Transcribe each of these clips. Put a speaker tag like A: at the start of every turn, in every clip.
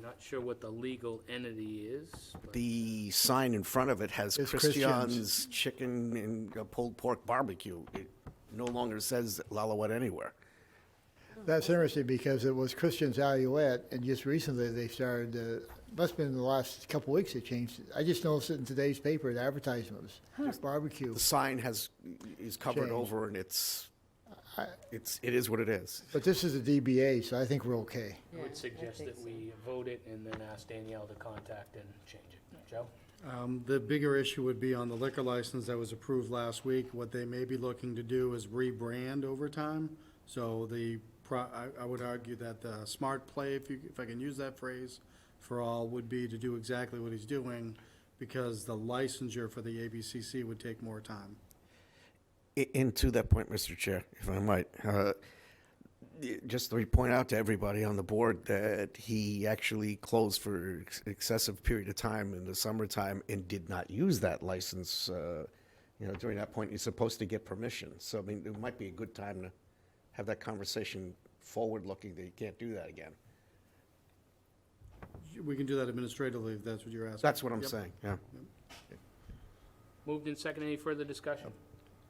A: not sure what the legal entity is. but-
B: The sign in front of it has
C: It's
B: Christian's Chicken and uh, Pulled Pork Barbecue. It no longer says Lalawet anywhere.
C: That's interesting because it was Christian's Alouette, and just recently they started, uh, must've been in the last couple weeks they changed it. I just noticed it in today's paper, the advertisements, barbecue.
B: The sign has, is covered
C: Changed.
B: over and it's, it's, it is what it is.
C: But this is a DBA, so I think we're okay.
A: I would suggest that we vote it and then ask Danielle to contact and change it. Joe?
D: Um, The bigger issue would be on the liquor license that was approved last week. What they may be looking to do is rebrand over time. So the, pro- I I would argue that the smart play, if you, if I can use that phrase, for all would be to do exactly what he's doing because the licensure for the ABCC would take more time.
B: I- And to that point, Mr. Chair, if I might, uh, y- just to point out to everybody on the board that he actually closed for ex- excessive period of time in the summertime and did not use that license. uh, You know, during that point, you're supposed to get permission. So, I mean, it might be a good time to have that conversation forward-looking that you can't do that again.
D: We can do that administratively if that's what you're asking.
B: That's what I'm
D: Yep.
B: saying, yeah.
A: Moved in second. Any further discussion?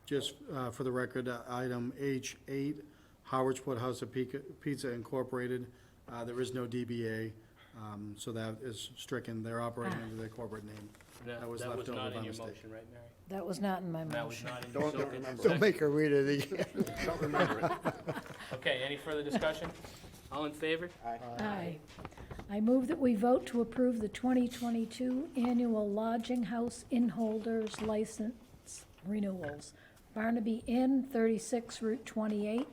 D: Just uh, for the record, uh, item H8, Howardsport House of Pica- Pizza Incorporated, uh, there is no DBA, um, so that is stricken. They're operating under their corporate name.
A: No,
D: That was
A: That was
D: left over
A: not
D: by
A: in your
D: mistake.
A: motion, right, Mary?
E: That was not in my
A: That was
E: motion.
A: not in your
B: Don't-
A: motion.
B: don't remember.
C: Don't make her read it again.
B: Don't remember it.
A: Okay, any further discussion? All in favor?
E: Aye. I move that we vote to approve the 2022 annual lodging house inholders license renewals. Barnaby Inn, 36 Route 28,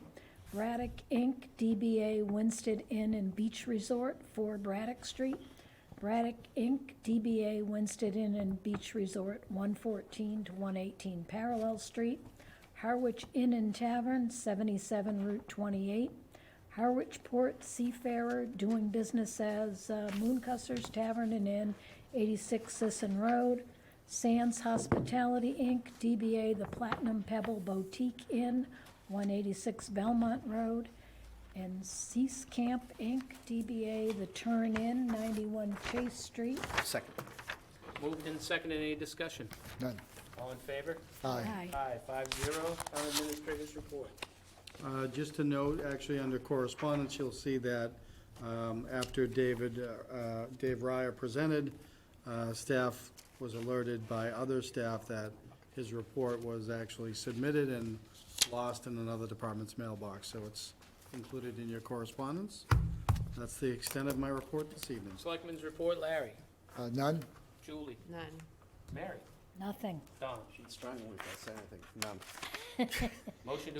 E: Braddock Inc., DBA Winston Inn and Beach Resort, 4 Braddock Street, Braddock Inc., DBA Winston Inn and Beach Resort, 114 to 118 Parallel Street, Harwich Inn and Tavern, 77 Route 28, Harwich Port Seafarer, doing business as uh, Mooncusser's Tavern and Inn, 86 Sisson Road, Sands Hospitality, Inc., DBA The Platinum Pebble Boutique Inn, 186 Belmont Road, and Cease Camp, Inc., DBA The Turn Inn, 91 Chase Street.
B: Second.
A: Moved in second. Any discussion?
C: None.
A: All in favor?
C: Aye.
E: Aye.
A: Aye, five zero. Town administrators report.
D: Uh, Just to note, actually, under correspondence, you'll see that um, after David, uh, uh, Dave Ryer presented, uh, staff was alerted by other staff that his report was actually submitted and lost in another department's mailbox, so it's included in your correspondence. That's the extent of my report this evening.
A: Selectmen's report, Larry,
C: Uh, None?
A: Julie,
F: None.
A: Mary,
E: Nothing.
A: Don.
B: Strong one, if I say anything. None.
A: Motion to